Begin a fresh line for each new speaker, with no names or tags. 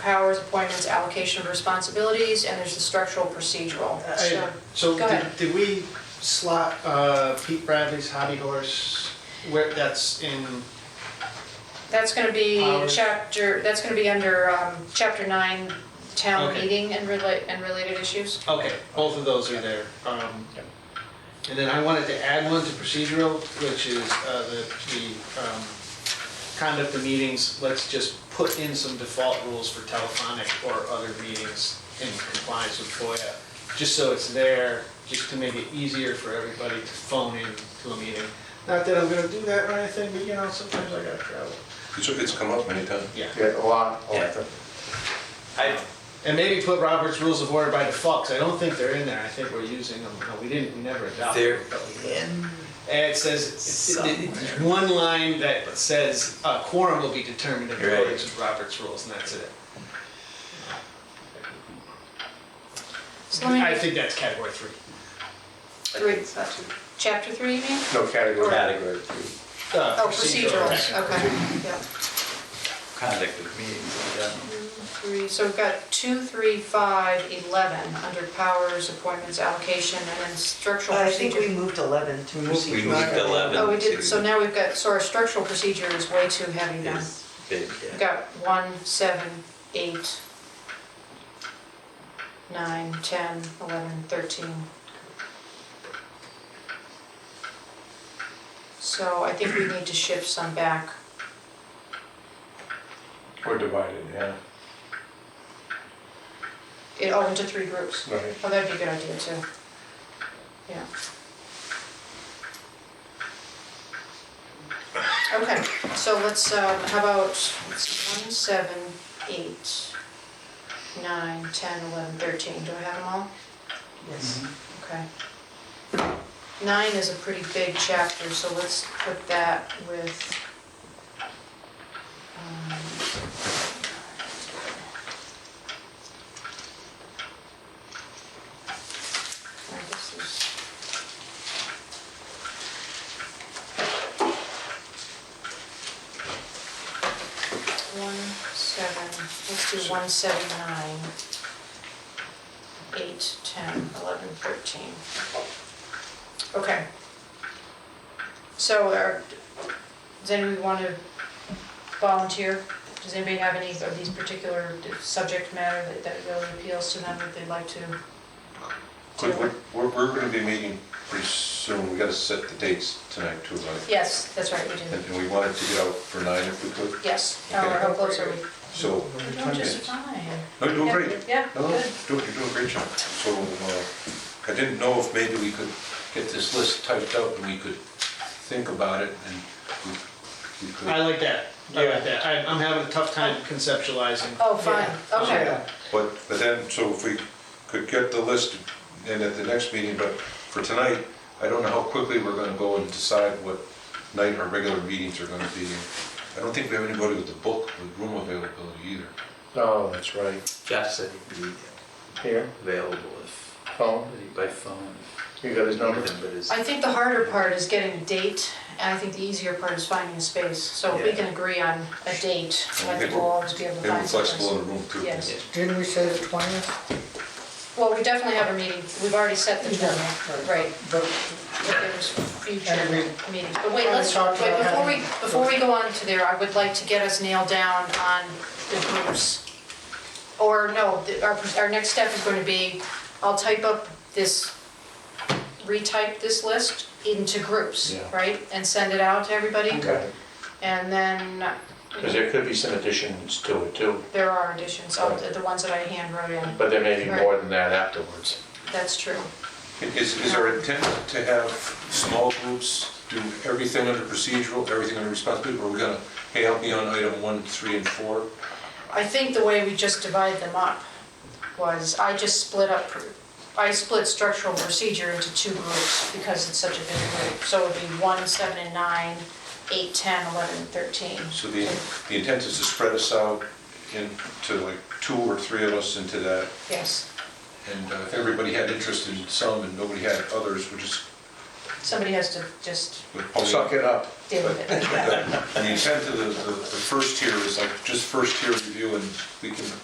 powers, appointments, allocation of responsibilities, and there's the structural procedural.
I-
So,
So
Uh, Go ahead.
did, did we slot uh, Pete Bradley's Hobby Horse, where, that's in,
That's gonna be
Powers.
chapter, that's gonna be under, um, chapter nine, town
Okay.
meeting and relate, and related issues.
okay, both of those are there. Um, And then I wanted to add one to procedural, which is uh, the, the um, conduct of meetings, let's just put in some default rules for telephonic or other meetings in compliance with FOIA, just so it's there, just to make it easier for everybody to phone in to a meeting. Not that I'm gonna do that or anything, but you know, sometimes I gotta travel.
It's, it's come up many times.
Yeah.
Yeah, a lot, all the
Yeah.
time.
I,
And maybe put Robert's Rules of Order by default, 'cause I don't think they're in there, I think we're using them, no, we didn't, we never adopted.
they're
them.
in,
And it says, it's- it- it- it's one line that says, uh, quorum will be determined in
Right.
accordance with Robert's Rules, and that's it.
So
I
let me,
think that's category three.
three, chapter three, you mean?
No category.
Category.
Uh,
Oh, procedurals, okay, yeah.
conduct of meetings in general.
Three, so we've got two, three, five, eleven, under powers, appointments, allocation, and then structural
I think we
procedure.
moved 11 to
We
proceed.
moved to eleven.
Oh, we did,
to-
so now we've got, so our structural procedure is way too heavy now.
is big,
We've
yeah.
got one, seven, eight, nine, ten, eleven, thirteen. So I think we need to shift some back.
We're divided, yeah.
It, oh, into three groups.
Right.
Oh, that'd be a good idea too. Yeah. Okay, so let's, um, how about, let's see, one, seven, eight, nine, ten, eleven, thirteen, do I have them all?
Yes.
Okay. Nine is a pretty big chapter, so let's put that with. um, now this is- One, seven, let's do one, seven, nine, eight, ten, eleven, thirteen. Okay. So are, does anybody want to volunteer? Does anybody have any of these particular subject matter that, that really appeals to them that they'd like to?
But we're, we're, we're gonna be meeting pretty soon, we gotta set the dates tonight too, right?
Yes, that's right, we do.
And, and we wanted to get out for nine if we could,
Yes, uh, how close are we?
so.
We're doing just fine.
No, you're doing great.
Yeah,
No,
good.
you're doing, you're doing a great job. So, uh, I didn't know if maybe we could get this list typed up and we could think about it and we, we
I
could.
like that, I like that, I, I'm having a tough time conceptualizing.
Oh, fine,
Yeah.
okay.
Yeah.
But, but then, so if we could get the list in at the next meeting, but for tonight, I don't know how quickly we're gonna go and decide what night our regular meetings are gonna be. I don't think we have anybody with the book, with room availability either.
Oh, that's right.
Jeff said he'd be
Here,
available if,
phone,
by phone.
you got his number?
But his-
I think the harder part is getting a date, and I think the easier part is finding a space. So if we
Yeah.
can agree on a date, I think we'll always be able to
They were
find something.
flexible in the room too.
Yes.
Didn't we say the 20th?
Well, we definitely have a meeting, we've already set the
Yeah,
term, right, but there's future
And we-
meetings. But wait,
Already
let's,
talked
wait,
about
before we,
having-
before we go on to there, I would like to get us nailed down on the groups. Or no, the- our, our next step is going to be, I'll type up this, retype this list into groups,
Yeah.
right? And send it out to everybody,
Okay.
and then
Because there could be some additions to it too,
there are additions, oh, the the ones that I hand wrote in,
but there may be more than that afterwards.
that's true.
Is, is our intent to have small groups do everything under procedural, everything under responsibility, or are we gonna, hey, help me on item one, three, and four?
I think the way we just divide them up was, I just split up, I split structural procedure into two groups because it's such a big group. So it would be one, seven, and nine, eight, 10, 11, and 13.
So the, the intent is to spread us out into like two or three of us into that,
Yes,
and uh, if everybody had interest in some and nobody had others, we're just.
somebody has to just
we're pulling-
Suck it up.
deal with it.
And the intent of the, the the first tier is like just first tier review, and we can